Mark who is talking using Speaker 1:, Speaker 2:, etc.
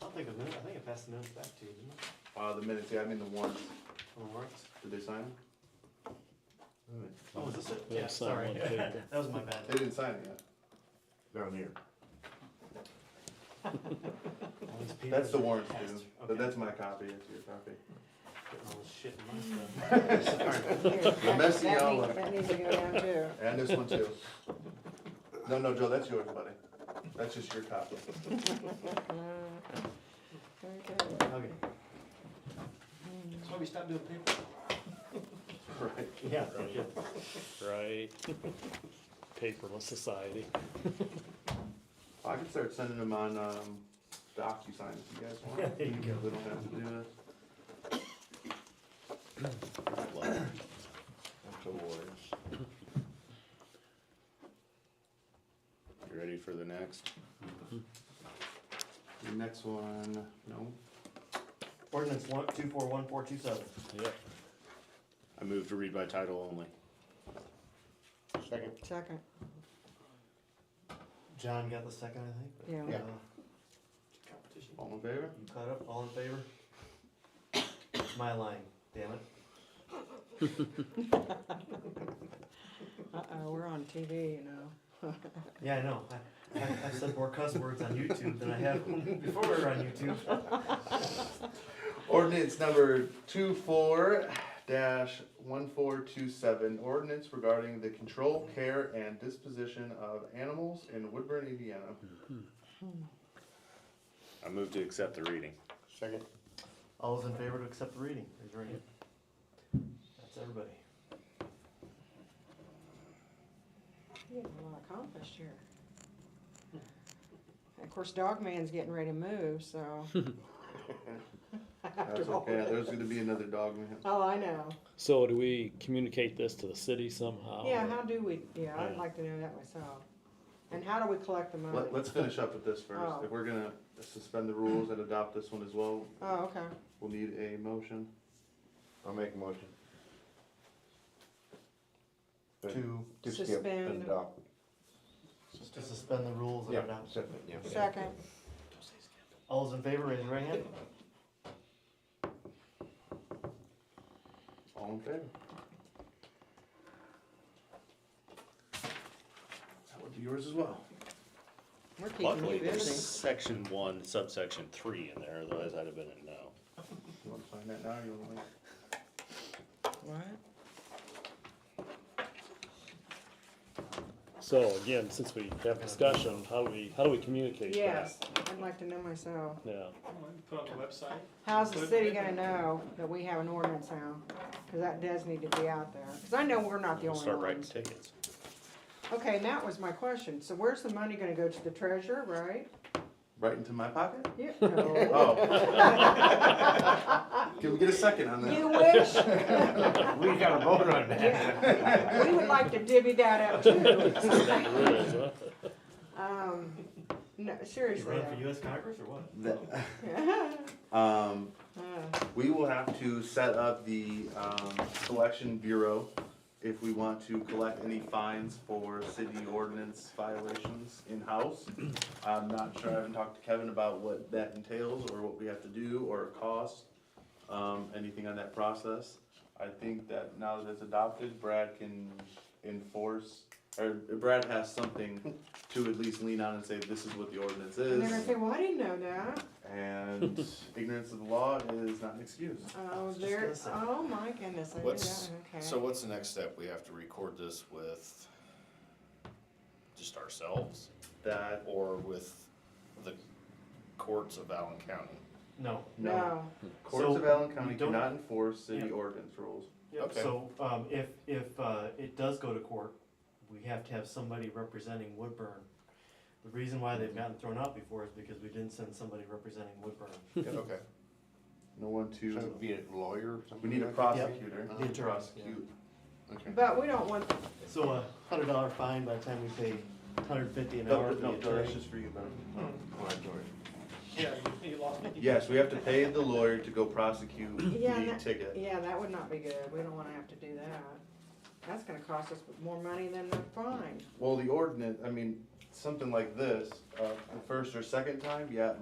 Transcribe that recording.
Speaker 1: don't think the minute, I think I passed the minutes back to you, didn't I?
Speaker 2: Uh, the minutes, yeah, I mean the warrants,
Speaker 1: On the warrants?
Speaker 2: did they sign them? Wait a minute.
Speaker 1: Oh, is this it?
Speaker 3: Yeah,
Speaker 1: Yeah, sorry.
Speaker 3: sign one, too.
Speaker 1: That was my
Speaker 2: They
Speaker 1: bad.
Speaker 2: didn't sign it yet.
Speaker 4: down here.
Speaker 2: That's the warrants, dude,
Speaker 1: Pastor,
Speaker 2: but
Speaker 1: okay.
Speaker 2: that's my copy, that's your copy.
Speaker 1: Getting all this shit in my stuff. Sorry.
Speaker 2: We're messing
Speaker 5: That
Speaker 2: y'all
Speaker 5: needs-
Speaker 2: up.
Speaker 5: That needs to go down too.
Speaker 2: And this one too. No, no, Joe, that's yours, buddy. That's just your copy.
Speaker 5: Okay.
Speaker 1: Okay. That's why we stopped doing paper.
Speaker 2: Right.
Speaker 1: Yeah.
Speaker 3: Right. Paperless society.
Speaker 2: I can start sending them on, um, DocuSign if you guys want.
Speaker 1: There you go.
Speaker 2: We don't have to do this.
Speaker 4: That's awards. You ready for the next?
Speaker 2: The next one, no.
Speaker 1: Ordinance one, two four one four two seven.
Speaker 3: Yep.
Speaker 4: I move to read by title only.
Speaker 2: Second.
Speaker 5: Second,
Speaker 1: John got the second, I think. but,
Speaker 5: Yeah.
Speaker 2: Yeah.
Speaker 1: uh, Competition.
Speaker 2: All in favor?
Speaker 1: You caught up, all in favor? It's my line, damn it.
Speaker 5: uh-oh, we're on TV, you know.
Speaker 1: Yeah, I know. I, I, I've said more cuss words on YouTube than I have before we were on YouTube.
Speaker 2: Ordinance number two four dash one four two seven, ordinance regarding the control, care, and disposition of animals in Woodburn, Indiana.
Speaker 4: I move to accept the reading.
Speaker 2: Second.
Speaker 1: All those in favor to accept the reading, raise your hand. That's everybody.
Speaker 5: You have a lot accomplished here. Of course, Dog Man's getting ready to move, so.
Speaker 2: That's
Speaker 5: After all
Speaker 2: okay,
Speaker 5: that-
Speaker 2: there's gonna be another dog man.
Speaker 5: Oh, I know.
Speaker 3: So do we communicate this to the city somehow?
Speaker 5: Yeah, how do we, yeah, I'd
Speaker 3: Oh, Yeah.
Speaker 5: like to know that myself. And how do we collect the money?
Speaker 2: Let, let's finish up with this first,
Speaker 5: Oh.
Speaker 2: if we're gonna suspend the rules and adopt this one as well,
Speaker 5: Oh, okay.
Speaker 2: we'll need a motion.
Speaker 4: I'll make a motion.
Speaker 1: To,
Speaker 4: To skip
Speaker 5: Suspend.
Speaker 4: adopt.
Speaker 1: to suspend the rules and adopt.
Speaker 4: accept it, yeah.
Speaker 5: Second,
Speaker 1: All those in favor, raise your right hand.
Speaker 2: All in favor? That would be yours as well.
Speaker 5: we're keeping
Speaker 4: Luckily,
Speaker 5: you
Speaker 4: there's
Speaker 5: busy.
Speaker 4: section one, subsection three in there, otherwise I'd have been at no.
Speaker 2: You wanna sign that now, or you wanna wait?
Speaker 5: What?
Speaker 3: So again, since we have discussion, how do we, how do we communicate that?
Speaker 5: Yes, I'd like to know myself.
Speaker 3: Yeah,
Speaker 6: Put on the website.
Speaker 5: How's the city gonna know that we have an ordinance now? Cause that does need to be out there. Cause I know we're not the
Speaker 4: We'll
Speaker 5: only
Speaker 4: start writing
Speaker 5: ones.
Speaker 4: tickets.
Speaker 5: Okay, and that was my question. So where's the money gonna go? To the treasurer, right?
Speaker 2: Right into my pocket?
Speaker 5: Yeah, no.
Speaker 2: Oh. Can we get a second on
Speaker 5: You
Speaker 2: that?
Speaker 5: wish?
Speaker 1: We got a vote on
Speaker 5: Yeah. We would like to divvy that up too.
Speaker 3: That really is, huh?
Speaker 5: Um, no,
Speaker 1: You
Speaker 5: seriously
Speaker 1: running for US Congress or what?
Speaker 5: though.
Speaker 2: Um,
Speaker 5: Uh,
Speaker 2: we will have to set up the, um, collection bureau if we want to collect any fines for city ordinance violations in-house. I'm not sure, I haven't talked to Kevin about what that entails, or what we have to do, or cost, um, anything on that process. I think that now that it's adopted, Brad can enforce, or Brad has something to at least lean on and say, this is what the ordinance
Speaker 5: And they're gonna
Speaker 2: is.
Speaker 5: say, well, I didn't know that.
Speaker 2: And ignorance of the law is not an excuse.
Speaker 5: Oh,
Speaker 1: just
Speaker 5: there,
Speaker 1: gonna say.
Speaker 5: oh my goodness, I did
Speaker 7: What's,
Speaker 5: that, okay.
Speaker 7: so what's the next step? We have to record this with just ourselves
Speaker 2: That,
Speaker 7: or with the courts of Allen County?
Speaker 1: No.
Speaker 2: no,
Speaker 5: No,
Speaker 2: courts of Allen County
Speaker 1: you don't-
Speaker 2: cannot enforce city
Speaker 1: Yeah.
Speaker 2: ordinance rules.
Speaker 7: Okay.
Speaker 1: So, um, if, if, uh, it does go to court, we have to have somebody representing Woodburn. The reason why they've gotten thrown out before is because we didn't send somebody representing Woodburn.
Speaker 7: Okay.
Speaker 2: No one
Speaker 4: So
Speaker 2: to,
Speaker 4: it'd be a lawyer or
Speaker 2: we
Speaker 4: something?
Speaker 2: need a
Speaker 4: like that?
Speaker 2: prosecutor
Speaker 1: Yeah.
Speaker 2: to prosecute.
Speaker 4: Okay.
Speaker 5: but we don't want,
Speaker 1: So a hundred dollar fine by the time we pay hundred fifty an hour
Speaker 2: No,
Speaker 1: for the
Speaker 2: no, no, that's
Speaker 1: attorney.
Speaker 2: just for you, buddy.
Speaker 4: All right, George.
Speaker 6: Yeah, you- you lost me.
Speaker 2: Yes, we have to pay the lawyer to go prosecute
Speaker 5: Yeah, and
Speaker 2: the
Speaker 5: that-
Speaker 2: ticket.
Speaker 5: yeah, that would not be good. We don't wanna have to do that. That's gonna cost us more money than the fine.
Speaker 2: Well, the ordinance, I mean, something like this, uh, the first or second time, yeah, it might